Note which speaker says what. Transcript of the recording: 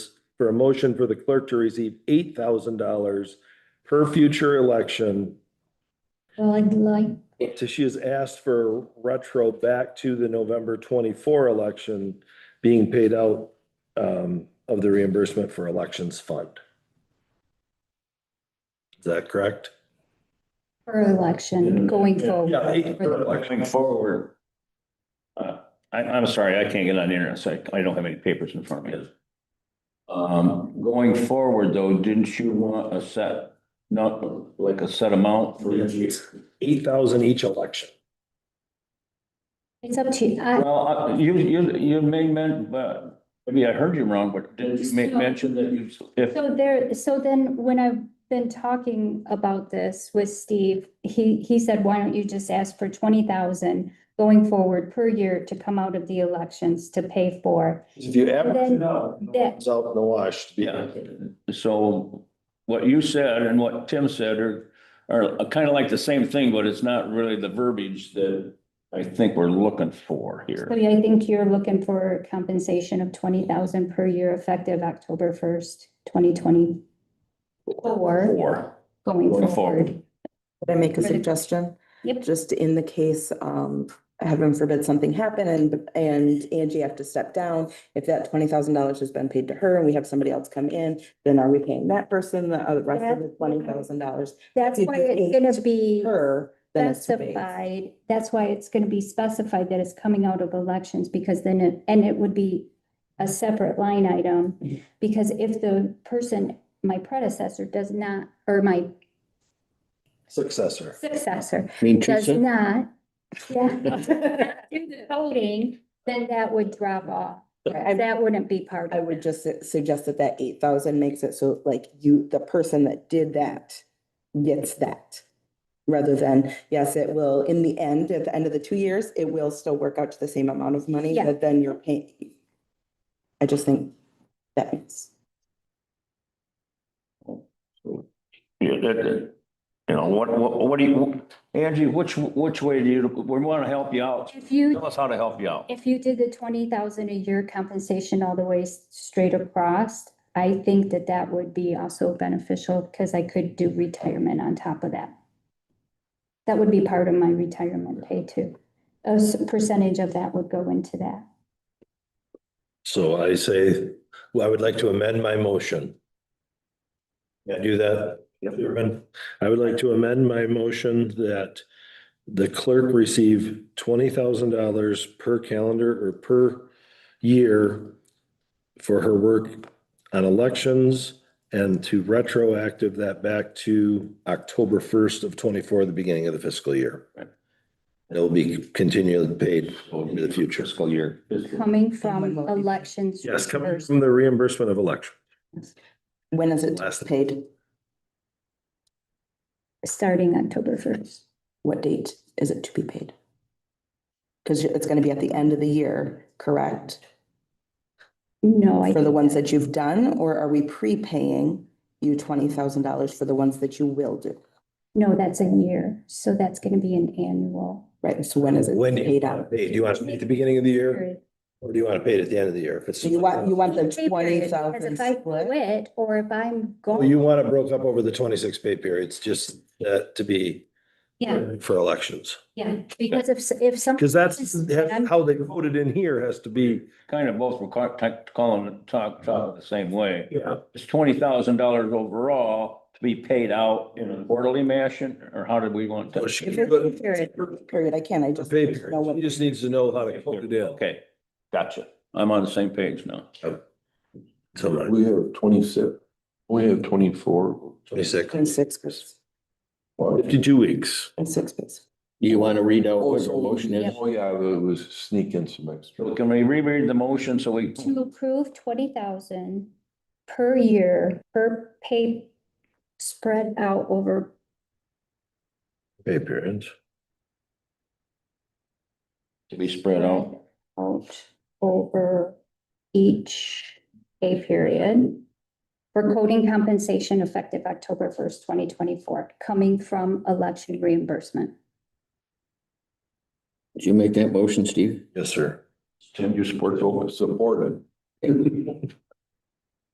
Speaker 1: for a motion for the clerk to receive eight thousand dollars per future election.
Speaker 2: Well, I'd like,
Speaker 1: So she has asked for retro back to the November twenty-four election being paid out um, of the reimbursement for elections fund. Is that correct?
Speaker 2: per election going
Speaker 1: Oh, Yeah, eight per
Speaker 2: forward.
Speaker 1: election.
Speaker 3: Going forward. Uh, I, I'm sorry, I can't get on the internet, so I, I don't have any papers in front of me. Um, going forward though, didn't you want a set, not like a set amount for each year?
Speaker 1: Eight thousand each election.
Speaker 2: It's up to you. I-
Speaker 3: Well, uh, you, you, you may meant, but maybe I heard you wrong, but didn't you make mention that you, if,
Speaker 2: So there, so then when I've been talking about this with Steve, he, he said, why don't you just ask for twenty thousand going forward per year to come out of the elections to pay for?
Speaker 1: If you average it
Speaker 2: Then
Speaker 1: out,
Speaker 2: that-
Speaker 1: it's out in the wash. to be
Speaker 3: Yeah.
Speaker 1: honest.
Speaker 3: so what you said and what Tim said are, are kind of like the same thing, but it's not really the verbiage that I think we're looking for here.
Speaker 2: So yeah, I think you're looking for compensation of twenty thousand per year effective October first, twenty twenty-four,
Speaker 3: Four.
Speaker 2: going
Speaker 3: Going forward.
Speaker 2: forward.
Speaker 4: Can I make a
Speaker 2: Right.
Speaker 4: suggestion?
Speaker 2: Yep.
Speaker 4: Just in the case, um, heaven forbid something happen and, and Angie have to step down. If that twenty thousand dollars has been paid to her and we have somebody else come in, then are we paying that person the other rest of the twenty thousand dollars?
Speaker 2: That's
Speaker 4: You
Speaker 2: why
Speaker 4: just
Speaker 2: it's
Speaker 4: need
Speaker 2: gonna be.
Speaker 4: Her, then it's two days.
Speaker 2: specified, that's why it's gonna be specified that it's coming out of elections, because then it, and it would be a separate line item, because if the person, my predecessor does not, or my
Speaker 1: Successor.
Speaker 2: successor
Speaker 3: Mean
Speaker 2: does not, yeah, do the voting, then that would drop off.
Speaker 4: Right, I-
Speaker 2: That wouldn't be part
Speaker 4: I
Speaker 2: of it.
Speaker 4: would just su- suggest that that eight thousand makes it so like you, the person that did that gets that. Rather than, yes, it will, in the end, at the end of the two years, it will still work out to the same amount of money
Speaker 2: Yeah.
Speaker 4: that then you're paying. I just think that makes.
Speaker 3: Yeah, that, that, you know, what, what, what do you, Angie, which, which way do you, we want to help you out.
Speaker 2: If you
Speaker 3: Tell us how to help you out.
Speaker 2: If you did the twenty thousand a year compensation all the way s- straight across, I think that that would be also beneficial because I could do retirement on top of that. That would be part of my retirement pay too. A s- percentage of that would go into that.
Speaker 1: So I say, well, I would like to amend my motion. Can I do that? Chairman? I would like to amend my motion that the clerk receive twenty thousand dollars per calendar or per year for her work on elections and to retroactive that back to October first of twenty-four, the beginning of the fiscal year.
Speaker 3: Right.
Speaker 1: It'll be continually paid into the future.
Speaker 3: Fiscal year.
Speaker 2: Coming
Speaker 4: when
Speaker 2: from
Speaker 4: will it be paid?
Speaker 2: elections.
Speaker 1: Yes, coming
Speaker 2: first.
Speaker 1: from the reimbursement of election.
Speaker 4: When is it
Speaker 1: Last-
Speaker 4: paid?
Speaker 2: Starting October first.
Speaker 4: What date is it to be paid? Because it's gonna be at the end of the year, correct?
Speaker 2: No, I,
Speaker 4: For the ones that you've done, or are we prepaying you twenty thousand dollars for the ones that you will do?
Speaker 2: no, that's a year. So that's gonna be an annual.
Speaker 4: Right, so when is it
Speaker 1: When do you
Speaker 4: paid
Speaker 1: want to
Speaker 4: out?
Speaker 1: pay? Do you want it at the beginning of the year
Speaker 2: period.
Speaker 1: or do you want to pay it at the end of the year? If it's.
Speaker 4: So you want, you want the
Speaker 2: Pay
Speaker 4: twenty
Speaker 2: period,
Speaker 4: thousand
Speaker 2: because If I
Speaker 4: split?
Speaker 2: quit or if I'm
Speaker 1: Well,
Speaker 2: gone.
Speaker 1: You want it broke up over the twenty-six pay periods, just uh, to be
Speaker 2: Yeah,
Speaker 1: for elections.
Speaker 2: yeah, because if, s- if some.
Speaker 1: Because that's how they voted in here has to be.
Speaker 3: Kind of both, we're ca- ta- calling, it- talk, talk the same way.
Speaker 1: Yeah.
Speaker 3: It's twenty thousand dollars overall to be paid out in a quarterly fashion, or how did we want
Speaker 1: So
Speaker 3: to?
Speaker 1: she-
Speaker 4: If it's pay period, period, I can, I
Speaker 1: For
Speaker 4: just.
Speaker 1: Pay
Speaker 4: don't know
Speaker 1: periods.
Speaker 4: what-
Speaker 1: He just needs to know how to put it in.
Speaker 3: Okay, gotcha. I'm on the same page now.
Speaker 1: So
Speaker 5: We have twenty-six, we have twenty-four.
Speaker 1: twenty-six.
Speaker 4: Twenty-six, please.
Speaker 1: Fifty-two weeks.
Speaker 4: Twenty-six, please.
Speaker 6: You want to read out
Speaker 5: Oh,
Speaker 6: what your motion is?
Speaker 5: Oh, yeah, it was sneaking some extra.
Speaker 3: So Can we reread the motion so we?
Speaker 2: To approve twenty thousand per year, per pay spread out over,
Speaker 1: Pay periods.
Speaker 3: To be spread out.
Speaker 2: out over each pay period. For coding compensation effective October first, twenty twenty-four, coming from election reimbursement.
Speaker 6: Did you make that motion, Steve?
Speaker 1: Yes, sir.
Speaker 5: Tim, you support, supported.